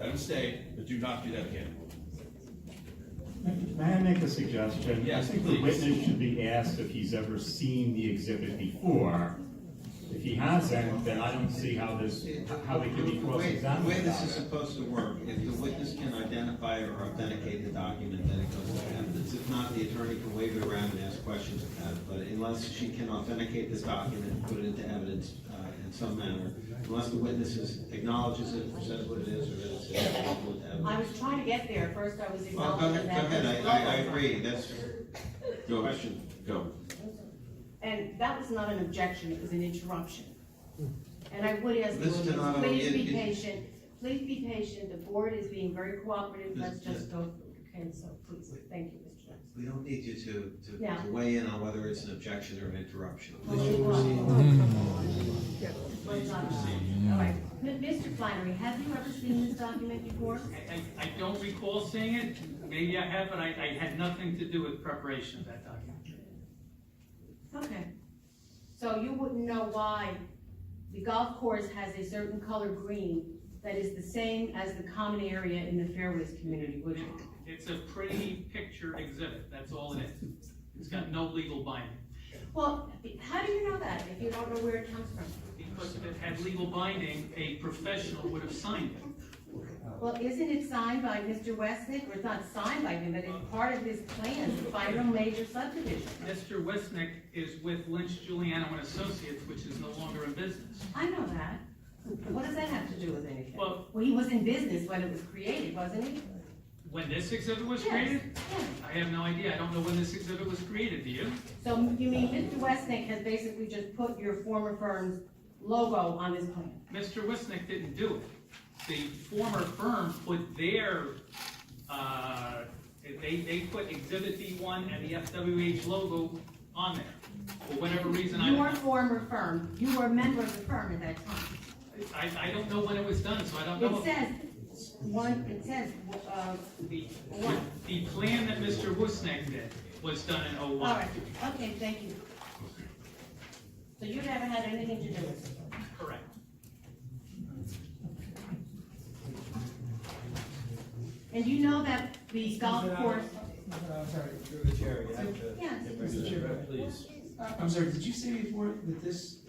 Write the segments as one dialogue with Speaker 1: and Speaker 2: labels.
Speaker 1: a mistake, but do not do that again.
Speaker 2: May I make a suggestion?
Speaker 1: Yes,
Speaker 2: I think
Speaker 1: please.
Speaker 2: the witness should be asked if he's ever seen the exhibit before. If he hasn't, then I don't see how this, how they can be
Speaker 3: The way
Speaker 2: cross-examined
Speaker 3: this
Speaker 2: about
Speaker 3: is
Speaker 2: it.
Speaker 3: supposed to work, if the witness can identify or authenticate the document, then it goes to evidence. If not, the attorney can wave it around and ask questions about it, but unless she can authenticate this document, put it into evidence uh, in some manner, unless the witness is- acknowledges it, or says what it is, or that it's available with
Speaker 4: I
Speaker 3: evidence.
Speaker 4: was trying to get there, first I was
Speaker 3: Well, go
Speaker 4: acknowledging
Speaker 3: ahead, go
Speaker 4: that.
Speaker 3: ahead,
Speaker 4: was
Speaker 3: I, I, I
Speaker 4: wrong.
Speaker 3: agree, that's your question.
Speaker 1: Go.
Speaker 4: And that was not an objection, it was an interruption. And I would ask the
Speaker 3: Mr.
Speaker 4: audience,
Speaker 3: Donato,
Speaker 4: please
Speaker 3: it-
Speaker 4: be
Speaker 3: it-
Speaker 4: patient, please be patient, the board is being very cooperative, let's
Speaker 3: Mr.
Speaker 4: just go, okay, so please, thank you, Mr. Johnson.
Speaker 3: We don't need you to, to-
Speaker 4: Yeah.
Speaker 3: to weigh in on whether it's an objection or an interruption.
Speaker 4: Let's not- all right. M- Mr. Flannery, have you ever seen this document before?
Speaker 5: I, I- I don't recall seeing it, maybe I have, but I, I had nothing to do with preparation of that document.
Speaker 4: Okay. So you wouldn't know why the golf course has a certain color green that is the same as the common area in the fairways community, would you?
Speaker 5: It's a pretty picture exhibit, that's all it is. It's got no legal binding.
Speaker 4: Well, how do you know that if you don't know where it comes from?
Speaker 5: Because if it had legal binding, a professional would have signed it.
Speaker 4: Well, isn't it signed by Mr. Westnick, or it's not signed by him, but it's part of his plan to find a major subdivision?
Speaker 5: Mr. Wesnick is with Lynch Giuliano and Associates, which is no longer in business.
Speaker 4: I know that. What does that have to do with anything?
Speaker 5: Well-
Speaker 4: he was in business when it was created, wasn't he?
Speaker 5: When this exhibit was
Speaker 4: Yes,
Speaker 5: created?
Speaker 4: yes.
Speaker 5: I have no idea, I don't know when this exhibit was created, do you?
Speaker 4: So you mean Mr. Westnick has basically just put your former firm's logo on his plan?
Speaker 5: Mr. Wisnick didn't do it. The former firm put their, uh, they, they put Exhibit D one and the FWH logo on there, for whatever reason, I,
Speaker 4: Your former firm, you were a member of the firm at that time.
Speaker 5: I, I don't know when it was done, so I don't
Speaker 4: It
Speaker 5: know. if-
Speaker 4: says, one, it says, uh,
Speaker 5: The,
Speaker 4: one.
Speaker 5: the plan that Mr. Wisnick did was done in oh
Speaker 4: All
Speaker 5: one.
Speaker 4: right, okay, thank you. So you never had anything to do with it?
Speaker 5: Correct.
Speaker 4: And you know that the golf course,
Speaker 6: I'm sorry,
Speaker 3: Through the chair, you have to-
Speaker 4: yes,
Speaker 6: Mr. Chairman.
Speaker 3: Please.
Speaker 6: Uh, I'm sorry, did you say before that this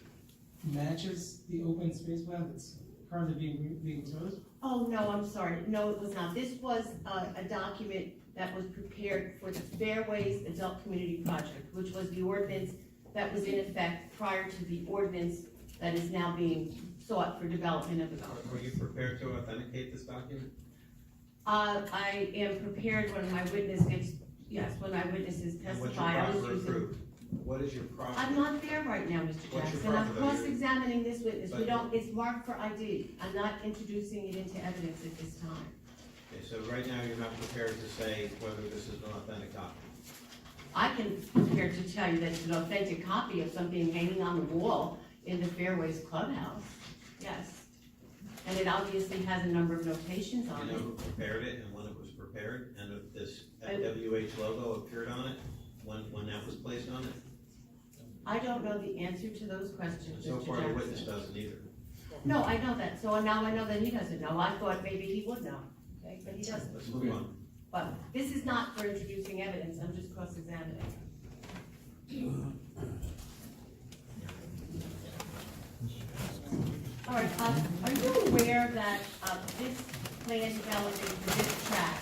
Speaker 6: matches the open space plan that's currently being, being proposed?
Speaker 4: oh, no, I'm sorry, no, it was not. This was uh, a, a document that was prepared for the Fairways Adult Community Project, which was the ordinance that was in effect prior to the ordinance that is now being sought for development of the golf
Speaker 3: Were
Speaker 4: course.
Speaker 3: you prepared to authenticate this document?
Speaker 4: Uh, I am prepared when my witness gives, yes, when my witnesses
Speaker 3: And what's your
Speaker 4: testify, I was
Speaker 3: proffer
Speaker 4: using.
Speaker 3: approved? What is your proffer?
Speaker 4: I'm not there right now, Mr.
Speaker 3: What's your
Speaker 4: Jackson, I'm
Speaker 3: problem?
Speaker 4: cross-examining this witness, we
Speaker 3: But-
Speaker 4: don't, it's marked for ID, I'm not introducing it into evidence at this time.
Speaker 3: Okay, so right now you're not prepared to say whether this is an authentic copy.
Speaker 4: I can prepare to tell you that it's an authentic copy of something hanging on the wall in the Fairways Clubhouse, yes. And it obviously has a number of notations
Speaker 3: You
Speaker 4: on
Speaker 3: know
Speaker 4: it.
Speaker 3: who prepared it and when it was prepared, and if this
Speaker 4: I-
Speaker 3: FWH logo appeared on it, when, when that was placed on it,
Speaker 4: I don't know the answer to those
Speaker 3: and
Speaker 4: questions,
Speaker 3: so
Speaker 4: Mr.
Speaker 3: far the witness
Speaker 4: Jackson.
Speaker 3: doesn't either.
Speaker 4: No, I know that, so now I know that he doesn't know, I thought maybe he would know, okay, but he doesn't.
Speaker 3: Let's move on.
Speaker 4: But this is not for introducing evidence, I'm just cross-examining. All right, um, are you aware that, uh, this plan development for this track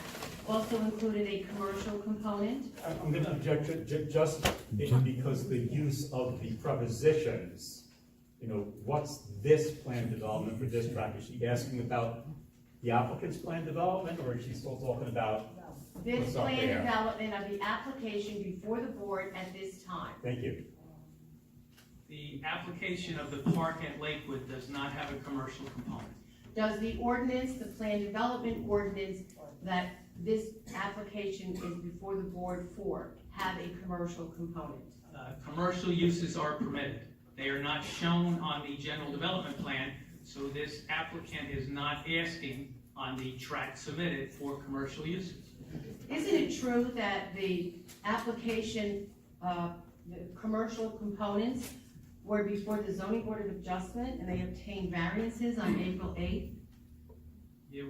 Speaker 4: also included a commercial component?
Speaker 7: I- I'm gonna object ju- ju- just in- because the use of the prepositions, you know, what's this plan development for this track? Is she asking about the applicant's plan development, or is she still talking about,
Speaker 4: This
Speaker 7: What's up
Speaker 4: plan
Speaker 7: there?
Speaker 4: development of the application before the board at this time.
Speaker 7: thank you.
Speaker 5: The application of the park at Lakewood does not have a commercial component.
Speaker 4: Does the ordinance, the plan development ordinance that this application is before the board for, have a commercial component?
Speaker 5: Uh, Commercial uses are permitted. They are not shown on the general development plan, so this applicant is not asking on the tract submitted for commercial uses.
Speaker 4: Isn't it true that the application, uh, the commercial components were before the zoning board of adjustment and they obtained variances on April eighth?